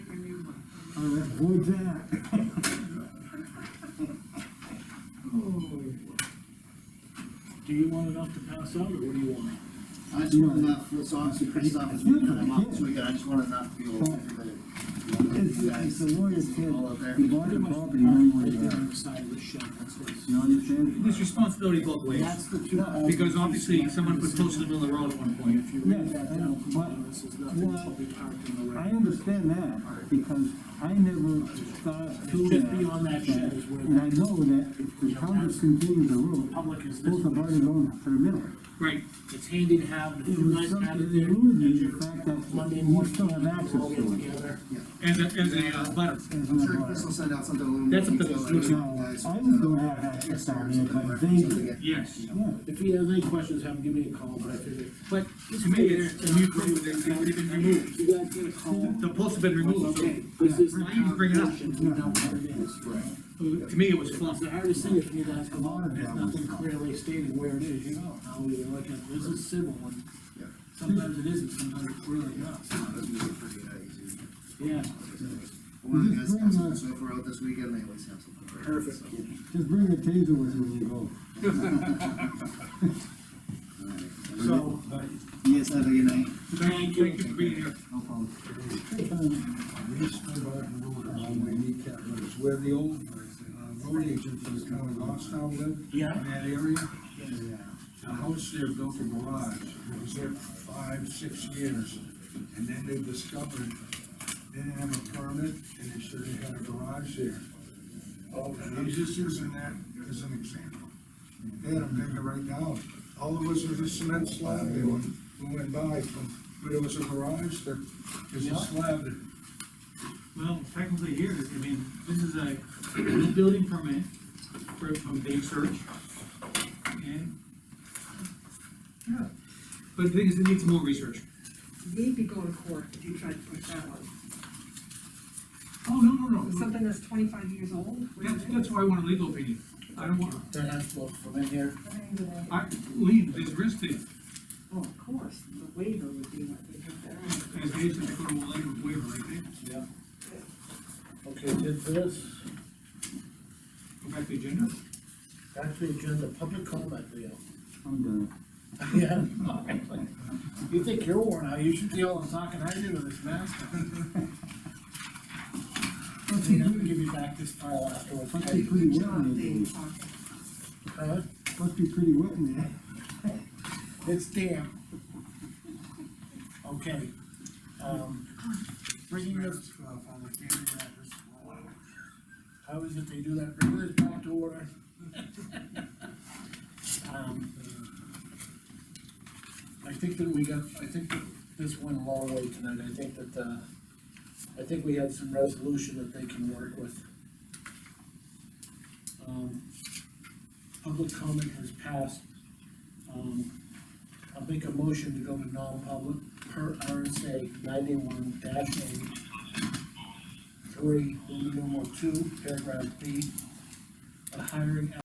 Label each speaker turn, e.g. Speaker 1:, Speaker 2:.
Speaker 1: I'll avoid that.
Speaker 2: Do you want enough to pass out, or what do you want?
Speaker 3: I just want enough, so obviously Chris's office, we got them up, so we got, I just want enough to be able to.
Speaker 1: It's, it's the lawyer's kid,
Speaker 3: All up there.
Speaker 1: he bought the uh, property, no one
Speaker 2: Right there
Speaker 1: there.
Speaker 2: on the side of the shed, that's what's-
Speaker 1: You understand?
Speaker 4: There's responsibility both ways,
Speaker 2: That's the two.
Speaker 4: because obviously someone put posts in the middle of the road at one point.
Speaker 2: If you read
Speaker 1: Yes,
Speaker 2: that
Speaker 1: I know,
Speaker 2: down,
Speaker 1: but-
Speaker 2: this is nothing shall be parked in the
Speaker 1: I
Speaker 2: right.
Speaker 1: understand that, because I never thought through
Speaker 2: Just
Speaker 1: that.
Speaker 2: beyond that shed is where
Speaker 1: And I know that if the town discontinues the road,
Speaker 2: Public is this
Speaker 1: both have already
Speaker 2: way.
Speaker 1: gone to the middle.
Speaker 4: Right,
Speaker 2: It's handy to have, and if
Speaker 1: It
Speaker 2: you
Speaker 1: was
Speaker 2: guys
Speaker 1: something,
Speaker 2: have
Speaker 1: it
Speaker 2: it there.
Speaker 1: ruined me,
Speaker 2: your
Speaker 1: the fact that
Speaker 2: Monday
Speaker 1: you
Speaker 2: morning.
Speaker 1: still have access
Speaker 2: all get
Speaker 1: to it.
Speaker 2: together.
Speaker 4: as a, as a, uh, butter.
Speaker 1: as
Speaker 3: I'm
Speaker 1: an
Speaker 3: sure
Speaker 1: abutter.
Speaker 3: Chris will send out something a little more.
Speaker 4: That's up to the
Speaker 3: detailed,
Speaker 4: future.
Speaker 1: Now,
Speaker 3: guys. uh,
Speaker 1: I was gonna have access down there, but they, yeah.
Speaker 4: yes.
Speaker 2: If he has any questions, have him give me a call, but I figured,
Speaker 4: But to me, it's, to me, it's already been removed,
Speaker 2: you guys get a call.
Speaker 4: the posts have been removed, so
Speaker 2: Okay, this is.
Speaker 4: Why you bring it up?
Speaker 2: We know what it is.
Speaker 4: to me, it was fluff.
Speaker 2: It's the hardest thing if you guys come on and there's nothing clearly stated where it is, you know, how we look at, this is civil and
Speaker 3: Yeah.
Speaker 2: sometimes it isn't, sometimes it's really not.
Speaker 3: So that's gonna be pretty, uh, easy.
Speaker 2: Yeah,
Speaker 3: One of the guys has something, so if we're out this weekend, they always have something. Perfect.
Speaker 1: just bring the taser with you when you go.
Speaker 3: So. Yes, have a good night.
Speaker 4: Thank you for being here.
Speaker 3: No problem.
Speaker 5: Reached Barton Road, on my kneecap, but it's where the old, uh, road agent for the town of Goffstown lived.
Speaker 2: Yeah.
Speaker 5: In that area. The house there built a garage, it was there for five, six years, and then they discovered, they didn't have a permit, and they should have had a garage there. And I'm just using that as an example. They had a bigger right now, all it was was a cement slab, they went, we went by from, but it was a garage that, is a slab that
Speaker 4: Well, technically here, I mean, this is a new building permit for, from Dave Search. And,
Speaker 5: Yeah.
Speaker 4: but the thing is, it needs more research.
Speaker 6: You'd be going to court if you tried to push that one.
Speaker 4: Oh, no, no,
Speaker 6: It's
Speaker 4: no,
Speaker 6: Something that's twenty-five years old. what do you
Speaker 4: that's,
Speaker 6: think?
Speaker 4: that's why I want a legal opinion. I don't want,
Speaker 3: Turn that book from in here.
Speaker 6: I think that-
Speaker 4: I, Lee, there's risk there,
Speaker 6: Oh, of course, the waiver would be what they have there.
Speaker 4: as Dave said, go to a legal waiver right there.
Speaker 2: yeah. Okay, did this,
Speaker 4: Go back to the agenda.
Speaker 2: back to the agenda, public comment, Leo.
Speaker 1: I'm done.
Speaker 2: Yeah. You think you're worn out, you should deal with talking I do to this master. I'm gonna give you back this pile afterwards.
Speaker 1: Must be
Speaker 2: okay?
Speaker 1: pretty wet
Speaker 6: John,
Speaker 1: in
Speaker 6: they
Speaker 1: there,
Speaker 6: talk.
Speaker 2: Huh?
Speaker 1: must be pretty wet in there.
Speaker 2: It's damp. Okay, um, bringing this, how is it they do that, bring this back to order? Um, I think that we got, I think that this went a long way tonight, I think that, uh, I think we had some resolution that they can work with. Um, public comment has passed, um, I'll make a motion to go to non-public per RSA ninety-one dash eight. Three, number two, paragraph B. A hiring